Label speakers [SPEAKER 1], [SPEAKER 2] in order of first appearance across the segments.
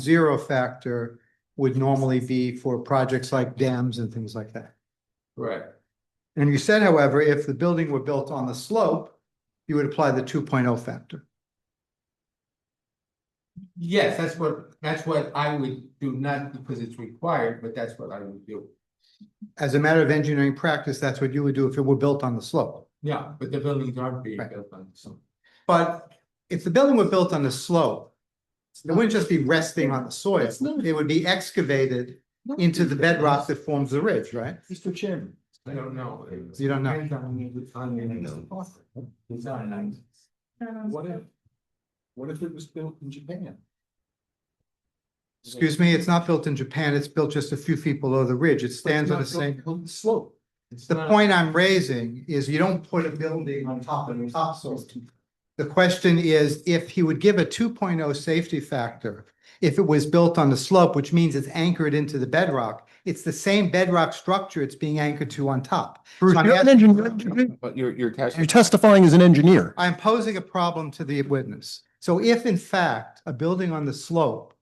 [SPEAKER 1] zero factor would normally be for projects like dams and things like that.
[SPEAKER 2] Right,
[SPEAKER 1] And you said, however, if the building were built on the slope, you would apply the two oh factor.
[SPEAKER 2] yes, that's what, that's what I would do, not because it's required, but that's what I would do.
[SPEAKER 1] As a matter of engineering practice, that's what you would do if it were built on the slope.
[SPEAKER 2] Yeah, but the buildings aren't being
[SPEAKER 1] Right.
[SPEAKER 2] built on some.
[SPEAKER 1] But if the building were built on the slope, it wouldn't just be resting on the soil.
[SPEAKER 2] It's not.
[SPEAKER 1] It would be excavated into the bedrock that forms the ridge, right?
[SPEAKER 3] Mr. Chairman.
[SPEAKER 2] I don't know.
[SPEAKER 1] You don't know.
[SPEAKER 2] Depends on the- on the- Design, I-
[SPEAKER 3] What if? What if it was built in Japan?
[SPEAKER 1] Excuse me, it's not built in Japan. It's built just a few feet below the ridge. It stands on the
[SPEAKER 3] It's not
[SPEAKER 1] same.
[SPEAKER 3] built On the slope.
[SPEAKER 2] It's
[SPEAKER 1] The
[SPEAKER 2] not-
[SPEAKER 1] point I'm raising is you don't put a building on top of the topsoil. The question is if he would give a 2.0 safety factor, if it was built on the slope, which means it's anchored into the bedrock. It's the same bedrock structure it's being anchored to on top.
[SPEAKER 4] Bruce,
[SPEAKER 1] So I'm
[SPEAKER 4] you're an
[SPEAKER 1] asking-
[SPEAKER 4] engineer.
[SPEAKER 5] But you're, you're
[SPEAKER 4] You're
[SPEAKER 5] testing.
[SPEAKER 4] testifying as an engineer.
[SPEAKER 1] I'm posing a problem to the witness. So if in fact, a building on the slope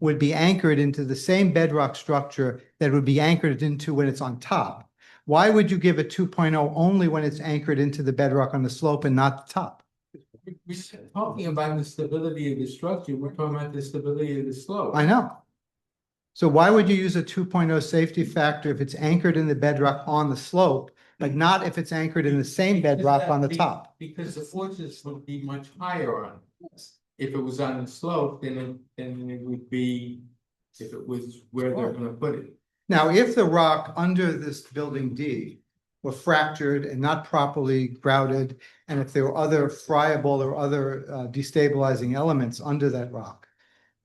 [SPEAKER 1] would be anchored into the same bedrock structure that would be anchored into when it's on top, why would you give a 2.0 only when it's anchored into the bedrock on the slope and not the top?
[SPEAKER 2] we- We're talking about the stability of the structure, we're talking about the stability of the slope.
[SPEAKER 1] I know. So why would you use a 2.0 safety factor if it's anchored in the bedrock on the slope, but not if it's anchored in the same bedrock on the top?
[SPEAKER 2] Because the forces would be much higher on. it. If it was on the slope, then it, then it would be, if it was where they're gonna put it.
[SPEAKER 1] Now, if the rock under this building D were fractured and not properly grouted, and if there were other friable or other uh, destabilizing elements under that rock,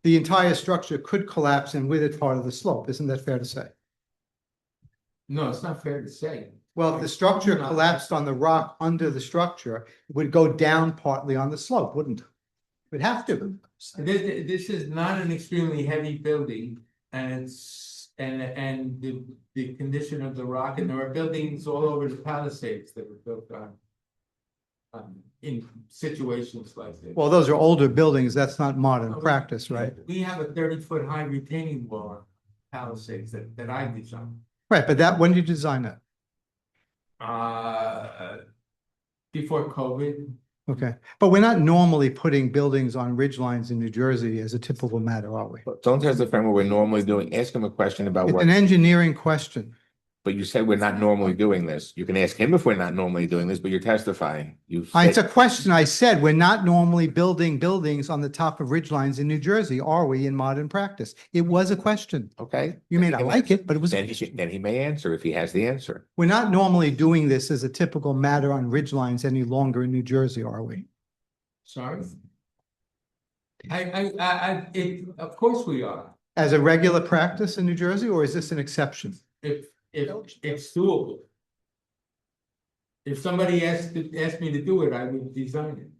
[SPEAKER 1] the entire structure could collapse and with it part of the slope. Isn't that fair to say?
[SPEAKER 2] No, it's not fair to say.
[SPEAKER 1] Well, if the structure collapsed on the rock under the structure, it would go down partly on the slope, wouldn't it? Would have to.
[SPEAKER 2] This, this is not an extremely heavy building and it's, and, and the, the condition of the rock and there are buildings all over the Palisades that were built on. Um, in situations like this.
[SPEAKER 1] Well, those are older buildings. That's not modern practice, right?
[SPEAKER 2] We have a thirty foot high retaining wall on Palisades that, that I designed.
[SPEAKER 1] Right, but that, when did you design that?
[SPEAKER 2] Uh, before COVID,
[SPEAKER 1] Okay, but we're not normally putting buildings on ridge lines in New Jersey as a typical matter, are we?
[SPEAKER 5] Don't testify what we're normally doing. Ask him a question about
[SPEAKER 1] It's an
[SPEAKER 5] what,
[SPEAKER 1] engineering question.
[SPEAKER 5] but you said we're not normally doing this. You can ask him if we're not normally doing this, but you're testifying. You
[SPEAKER 1] I- It's a
[SPEAKER 5] said-
[SPEAKER 1] question. I said, we're not normally building buildings on the top of ridge lines in New Jersey, are we, in modern practice? It was a question.
[SPEAKER 5] Okay,
[SPEAKER 1] You may not like it, but it was,
[SPEAKER 5] then he should, then he may answer if he has the answer.
[SPEAKER 1] we're not normally doing this as a typical matter on ridge lines any longer in New Jersey, are we?
[SPEAKER 2] sorry. I, I, I, I, it, of course we are,
[SPEAKER 1] As a regular practice in New Jersey, or is this an exception?
[SPEAKER 2] if, if it's doable. If somebody asked, asked me to do it, I would design it.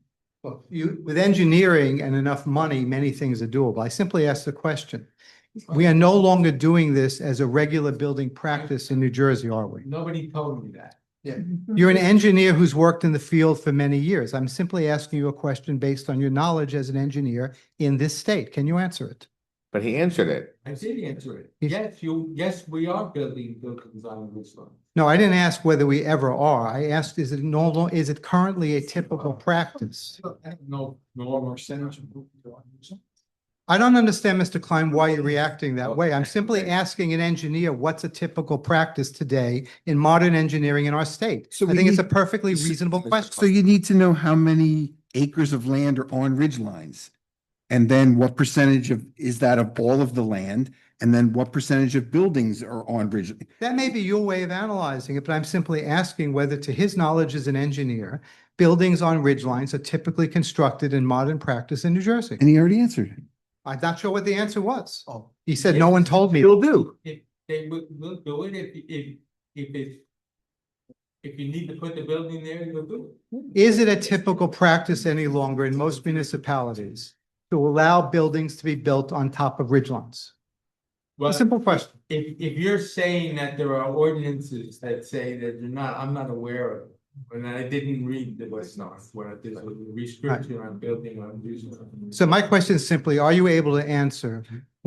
[SPEAKER 1] Well, you, with engineering and enough money, many things are doable. I simply asked the question. We are no longer doing this as a regular building practice in New Jersey, are we?
[SPEAKER 2] Nobody told me that.
[SPEAKER 1] You're an engineer who's worked in the field for many years. I'm simply asking you a question based on your knowledge as an engineer in this state. Can you answer it?
[SPEAKER 5] But he answered it.
[SPEAKER 2] I did answer it.
[SPEAKER 1] If-
[SPEAKER 2] Yes, you, yes, we are building buildings on this one.
[SPEAKER 1] No, I didn't ask whether we ever are. I asked, is it no, lo- is it currently a typical practice?
[SPEAKER 2] No, normal
[SPEAKER 3] Percentage of-
[SPEAKER 1] I don't understand, Mr. Klein, why you're reacting that way. I'm simply asking an engineer, what's a typical practice today in modern engineering in our state?
[SPEAKER 4] So
[SPEAKER 1] I
[SPEAKER 4] we
[SPEAKER 1] think it's a
[SPEAKER 4] need-
[SPEAKER 1] perfectly
[SPEAKER 4] so-
[SPEAKER 1] reasonable
[SPEAKER 5] Mr.
[SPEAKER 4] So
[SPEAKER 1] question.
[SPEAKER 4] you need to know how many acres of land are on ridge lines. And then what percentage of, is that of all of the land? And then what percentage of buildings are on ridge?
[SPEAKER 1] That may be your way of analyzing it, but I'm simply asking whether, to his knowledge as an engineer, buildings on ridge lines are typically constructed in modern practice in New Jersey.
[SPEAKER 4] And Oh, he already answered. it.
[SPEAKER 1] I'm not sure what the answer was. He said, no one told me.
[SPEAKER 4] do.
[SPEAKER 2] If they would, will do it, if, if, if it's. If you need to put the building there, you'll do it.
[SPEAKER 1] Is it a typical practice any longer in most municipalities to allow buildings to be built on top of ridge lines?
[SPEAKER 2] Well,
[SPEAKER 1] A simple question.
[SPEAKER 2] if, if you're saying that there are ordinances that say that you're not, I'm not aware of. it. And I didn't read the West North, where there's a restriction on building on. these-
[SPEAKER 1] So my question is simply, are you able to answer